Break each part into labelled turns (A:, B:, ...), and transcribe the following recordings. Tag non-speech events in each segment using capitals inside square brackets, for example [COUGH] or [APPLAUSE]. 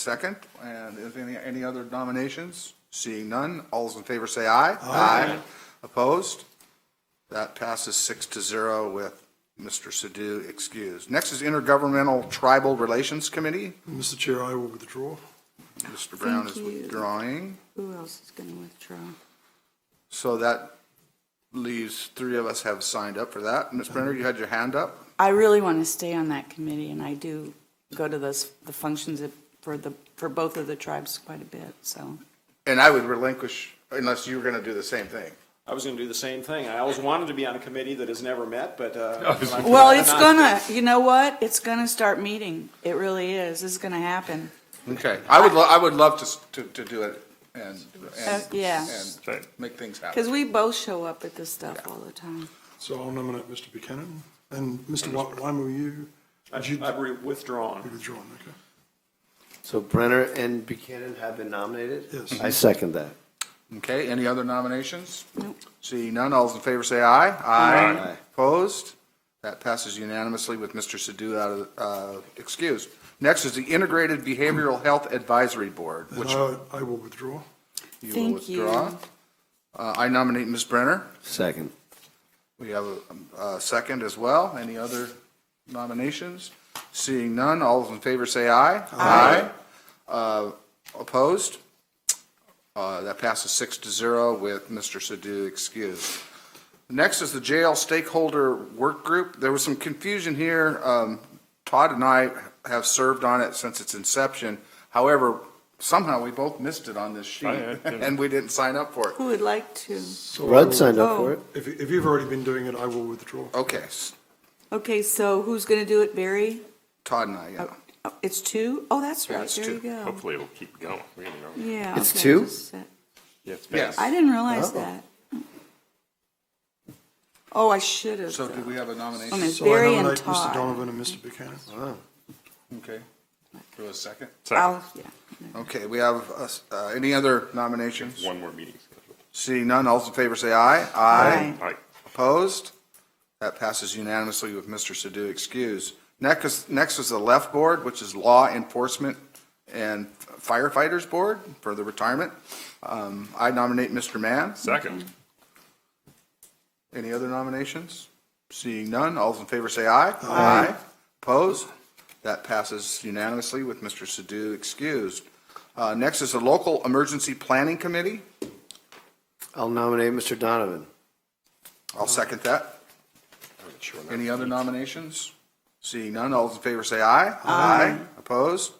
A: Second, and if any, any other nominations? Seeing none, all those in favor say aye. Aye. Opposed? That passes six to zero with Mr. Sadoo excused. Next is Intergovernmental Tribal Relations Committee.
B: Mr. Chair, I will withdraw.
A: Mr. Brown is
C: Thank you.
A: withdrawing,
C: Who else is going to withdraw?
A: so that leaves, three of us have signed up for that. Ms. Brenner, you had your hand up?
C: I really want to stay on that committee, and I do go to those, the functions of- for the, for both of the tribes quite a bit, so.
A: And I would relinquish, unless you were going to do the same thing.
D: I was going to do the same thing. I always wanted to be on a committee that has never met, but. uh, when I-
C: Well, it's gonna, you know what? It's gonna start meeting. It really is. It's gonna happen.
A: Okay. I would, lo- I would love to, s- to, to do it and,
C: Uh,
A: and.
C: yeah.
A: And make things happen.
C: Because we both show up at this stuff all the time.
B: So I'll nominate Mr. Buchanan. And Mr. Wa- Wyman, you, would you
D: I've I've re- withdrawn.
B: withdraw? Okay.
E: So Brenner and Buchanan have been nominated?
B: Yes.
E: I second that.
A: Okay, any other nominations?
C: Nope.
A: Seeing none, all those in favor say aye.
E: Aye.
A: Opposed? That passes unanimously with Mr. Sadoo out of, uh, excused. Next is the Integrated Behavioral Health Advisory Board,
B: And
A: which
B: I, I will withdraw.
A: you will
C: Thank you.
A: withdraw. Uh, I nominate Ms. Brenner.
E: Second.
A: We have a, a second as well. Any other nominations? Seeing none, all those in favor say aye. Aye. Uh, Opposed? Uh, That passes six to zero with Mr. Sadoo excused. Next is the jail stakeholder work group. There was some confusion here. Um, Todd and I have served on it since its inception. However, somehow we both missed it on this sheet,
F: had, yeah.
A: [LAUGHS] and we didn't sign up for it.
C: Who would like to?
B: So I will-
E: Rudd signed
A: Oh.
E: up for it.
B: If, if you've already been doing it, I will withdraw.
A: Okay, s-
C: Okay, so who's gonna do it, Barry?
A: Todd and I, yeah.
C: Oh, It's two? Oh, that's
A: Yeah,
C: right.
A: it's
C: There
A: two.
C: you go.
F: Hopefully it'll keep going, you know.
C: Yeah.
E: It's
C: okay,
E: two?
C: just that.
F: Yes.
A: Yes.
C: I didn't realize
E: Oh.
C: that. Oh, I should have.
A: So do we have a nomination?
C: On his
B: So I
C: Barry and
B: nominate Mr.
C: Todd.
B: Donovan and Mr. Buchanan.
A: Okay. Do a second?
C: I'll, yeah.
A: Okay, we have, uh, s- uh, any other nominations?
F: One more meeting scheduled.
A: Seeing none, all those in favor say aye.
C: Aye.
F: All right.
A: Opposed? That passes unanimously with Mr. Sadoo excused. Next is, next is the Left Board, which is Law Enforcement and Firefighters Board for the retirement. Um, I nominate Mr. Mann.
F: Second.
A: Any other nominations? Seeing none, all those in favor say aye. Aye. Opposed? That passes unanimously with Mr. Sadoo excused. Uh, Next is the Local Emergency Planning Committee.
E: I'll nominate Mr. Donovan.
A: I'll second that. Any other nominations? Seeing none, all those in favor say aye. Aye. Opposed?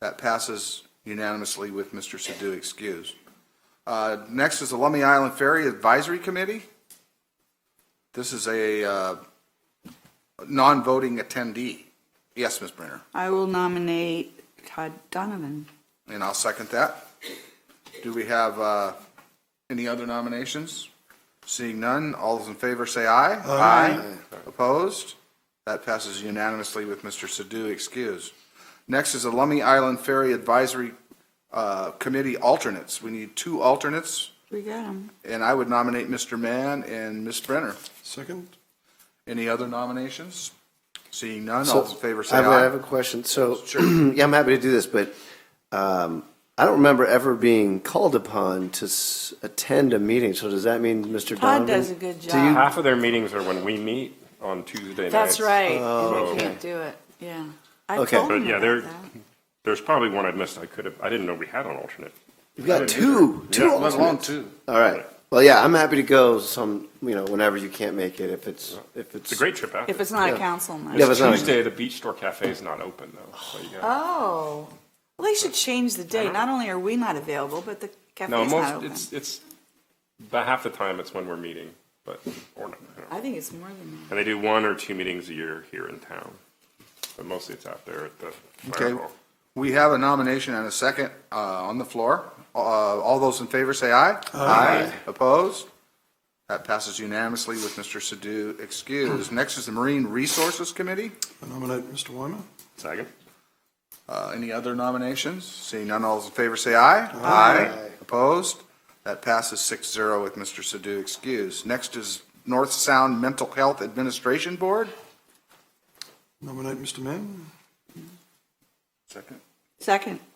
A: That passes unanimously with Mr. Sadoo excused. Uh, Next is the Lummi Island Ferry Advisory Committee. This is a uh, non-voting attendee. Yes, Ms. Brenner,
C: I will nominate Todd Donovan.
A: and I'll second that. Do we have uh, any other nominations? Seeing none, all those in favor say aye. Aye. Opposed? That passes unanimously with Mr. Sadoo excused. Next is the Lummi Island Ferry Advisory uh, Committee alternates. We need two alternates,
C: We got him.
A: and I would nominate Mr. Mann and Ms. Brenner.
B: Second?
A: Any other nominations? Seeing none,
E: So,
A: all those in favor say
E: I have a- I have
A: aye.
E: a question. So, [CLEARS THROAT] yeah, I'm happy to do this, but um, I don't remember ever being called upon to s- attend a meeting. So does that mean Mr.
C: Todd
E: Donovan?
C: does a good
E: Do you-
C: job.
F: Half of their meetings are when we meet on Tuesday nights.
C: That's right.
F: Oh,
C: And I
F: okay.
C: can't do it. Yeah. I
E: Okay.
C: told
F: But
C: him
F: yeah,
C: about
F: there,
C: that.
F: there's probably one I missed. I could have, I didn't know we had an alternate.
E: We've got two, two
F: Yeah,
A: Let alone two.
E: All right. Well, yeah, I'm happy to go some, you know, whenever you can't make it, if it's, if it's.
F: It's a great trip out.
C: If it's not a
E: Yeah.
C: council
E: Yeah,
C: night.
E: but- it's not-
F: Tuesday, the Beach Store Cafe is not open though. so you gotta-
C: Oh, well, they should change the date. Not only are we not available, but the
F: No,
C: cafe's not
F: most,
C: open.
F: it's, it's, about half the time it's when we're meeting, but, or not. you know.
C: I think it's more than
F: And they do one or two meetings a year here in town. But mostly it's out there at the fire
A: Okay,
F: hall.
A: we have a nomination and a second uh, on the floor. Uh, All those in favor say aye. Aye. Opposed? That passes unanimously with Mr. Sadoo [CLEARS THROAT] excused. Next is the Marine Resources Committee.
B: I nominate Mr. Wyman.
F: Second?
A: Uh, Any other nominations? Seeing none, all those in favor say aye. Aye. Opposed? That passes 6-0 with Mr. Sadoo excused. Next is North Sound Mental Health Administration Board.
B: Nominate Mr. Mann.
A: Second.
C: that. Second,